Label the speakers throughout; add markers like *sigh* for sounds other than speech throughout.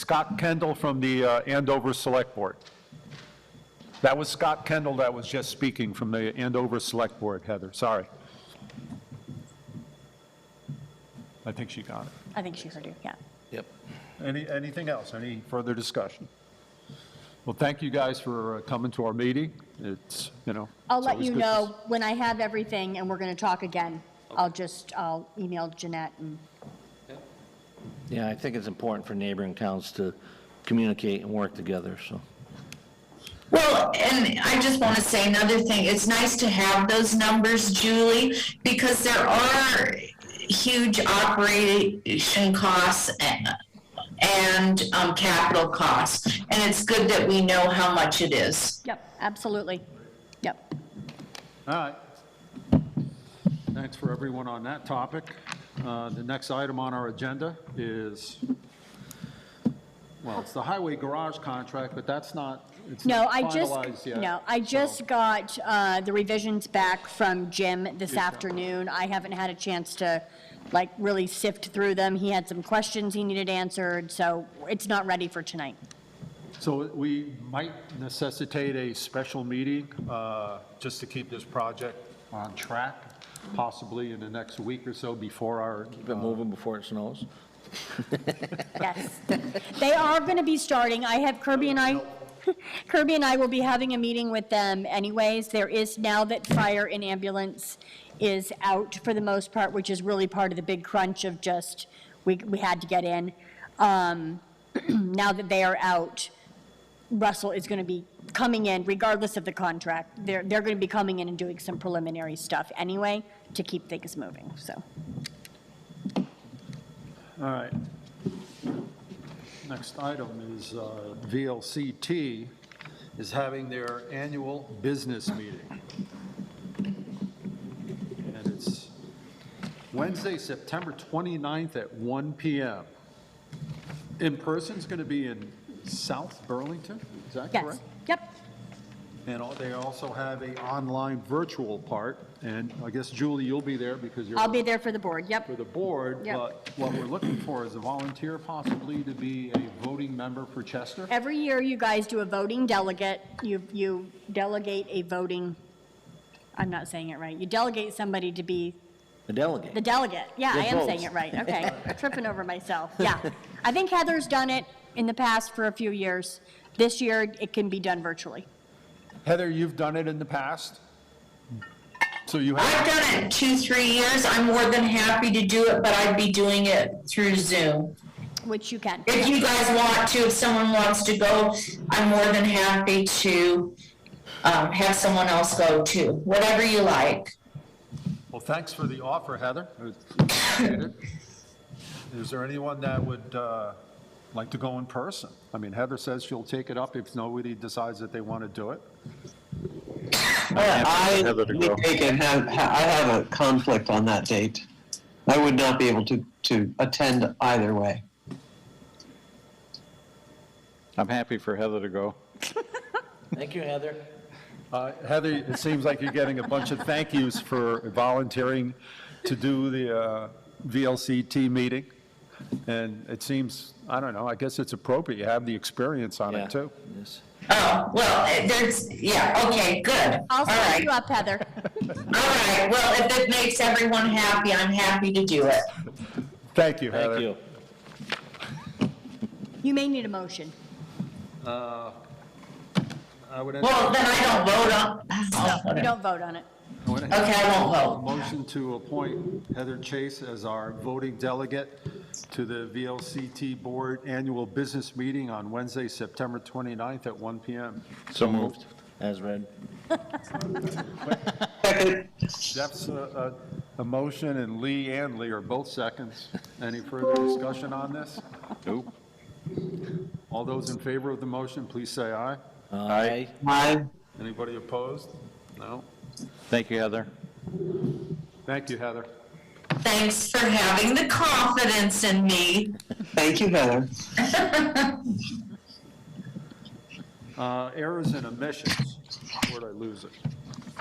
Speaker 1: Scott Kendall from the uh, Andover Select Board. That was Scott Kendall that was just speaking from the Andover Select Board, Heather, sorry. I think she got it.
Speaker 2: I think she heard you, yeah.
Speaker 3: Yep.
Speaker 1: Any, anything else, any further discussion? Well, thank you guys for uh, coming to our meeting. It's, you know.
Speaker 2: I'll
Speaker 1: it's
Speaker 2: let
Speaker 1: always
Speaker 2: you
Speaker 1: good to
Speaker 2: know when I have everything and we're going to talk again. I'll just, I'll email Jeanette and,
Speaker 3: Yeah, I think it's important for neighboring towns to communicate and work together, so.
Speaker 4: Well, and I just want to say another thing. It's nice to have those numbers, Julie, because there are huge operation costs and, and um, capital costs. And it's good that we know how much it is.
Speaker 2: yep, absolutely. Yep.
Speaker 1: All right. Thanks for everyone on that topic. Uh, The next item on our agenda is, well, it's the highway garage contract, but that's not, it's
Speaker 2: No,
Speaker 1: not
Speaker 2: I
Speaker 1: finalized
Speaker 2: just,
Speaker 1: yet.
Speaker 2: no, I
Speaker 1: so-
Speaker 2: just got uh, the revisions back from Jim this afternoon. I haven't had a chance to, like, really sift through them. He had some questions he needed answered, so it's not ready for tonight.
Speaker 1: So we might necessitate a special meeting uh, just to keep this project on track, possibly in the next week or so before our
Speaker 3: Been moving before it snows.
Speaker 2: Yes. They are going to be starting. I have Kirby and I, *laughs* Kirby and I will be having a meeting with them anyways. There is, now that fire and ambulance is out for the most part, which is really part of the big crunch of just, we, we had to get in. Um, *clears throat* Now that they are out, Russell is going to be coming in regardless of the contract. They're, they're going to be coming in and doing some preliminary stuff anyway to keep things moving, so.
Speaker 1: All right. Next item is uh, VLCT is having their annual business meeting. And it's Wednesday, September 29th at 1 PM. In person's going to be in South Burlington, is that
Speaker 2: Yes,
Speaker 1: correct?
Speaker 2: yep.
Speaker 1: And al- they also have a online virtual part, and I guess Julie, you'll be there because you're
Speaker 2: I'll be there for the board, yep.
Speaker 1: for the board,
Speaker 2: Yep.
Speaker 1: but what we're looking for is a volunteer possibly to be a voting member for Chester.
Speaker 2: Every year, you guys do a voting delegate. You, you delegate a voting, I'm not saying it right. You delegate somebody to be
Speaker 3: The
Speaker 2: the
Speaker 3: delegate.
Speaker 2: delegate. Yeah, I
Speaker 3: With
Speaker 2: am
Speaker 3: votes.
Speaker 2: saying it
Speaker 4: *laughs*
Speaker 2: right. Okay, tripping over myself. Yeah. I think Heather's done it in the past for a few years. This year, it can be done virtually.
Speaker 1: Heather, you've done it in the past? So you have,
Speaker 4: I've done it two, three years. I'm more than happy to do it, but I'd be doing it through Zoom.
Speaker 2: Which you can.
Speaker 4: If you guys want to, if someone wants to go, I'm more than happy to um, have someone else go too, whatever you like.
Speaker 1: well, thanks for the offer, Heather. Appreciate it. Is there anyone that would uh, like to go in person? I mean, Heather says she'll take it up if nobody decides that they want to do it.
Speaker 5: I,
Speaker 6: Heather
Speaker 5: let
Speaker 6: to
Speaker 5: me
Speaker 6: go.
Speaker 5: take it, have, ha- I have a conflict on that date. I would not be able to, to attend either way.
Speaker 6: I'm happy for Heather to go.
Speaker 3: Thank you, Heather.
Speaker 1: Uh, Heather, it seems like you're getting a bunch of thank yous for volunteering to do the uh, VLCT meeting. And it seems, I don't know, I guess it's appropriate. You have the experience on
Speaker 3: Yeah.
Speaker 1: it, too.
Speaker 3: Yes.
Speaker 4: Oh, well, there's, yeah, okay, good. All
Speaker 2: I'll set
Speaker 4: right,
Speaker 2: you
Speaker 4: all
Speaker 2: up, Heather.
Speaker 4: right. Well, if it makes everyone happy, I'm happy to do it.
Speaker 1: Thank you, Heather.
Speaker 3: Thank you.
Speaker 2: You may need a motion.
Speaker 1: I would
Speaker 4: Well, then I don't vote on, oh,
Speaker 2: You
Speaker 4: whatever.
Speaker 2: don't vote on it.
Speaker 4: okay, I won't
Speaker 1: a
Speaker 4: vote.
Speaker 1: motion to appoint Heather Chase as our voting delegate to the VLCT Board Annual Business Meeting on Wednesday, September 29th at 1 PM.
Speaker 6: So moved.
Speaker 3: As read.
Speaker 5: Second,
Speaker 1: Jeff's a, a, a motion, and Lee and Lee are both seconds. Any further discussion on this?
Speaker 6: Nope.
Speaker 1: All those in favor of the motion, please say aye.
Speaker 3: Aye.
Speaker 5: aye.
Speaker 1: Anybody opposed? No?
Speaker 6: Thank you, Heather.
Speaker 1: Thank you, Heather.
Speaker 4: Thanks for having the confidence in me.
Speaker 5: Thank you, Heather.
Speaker 1: Uh, errors and omissions. Where'd I lose it?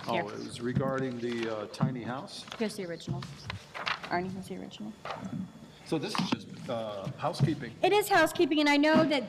Speaker 1: Oh,
Speaker 2: Here.
Speaker 1: it was regarding the uh, tiny house.
Speaker 2: Here's the original. Arnie, here's the original.
Speaker 1: So this has just been
Speaker 7: uh, housekeeping.
Speaker 2: It is housekeeping, and I know that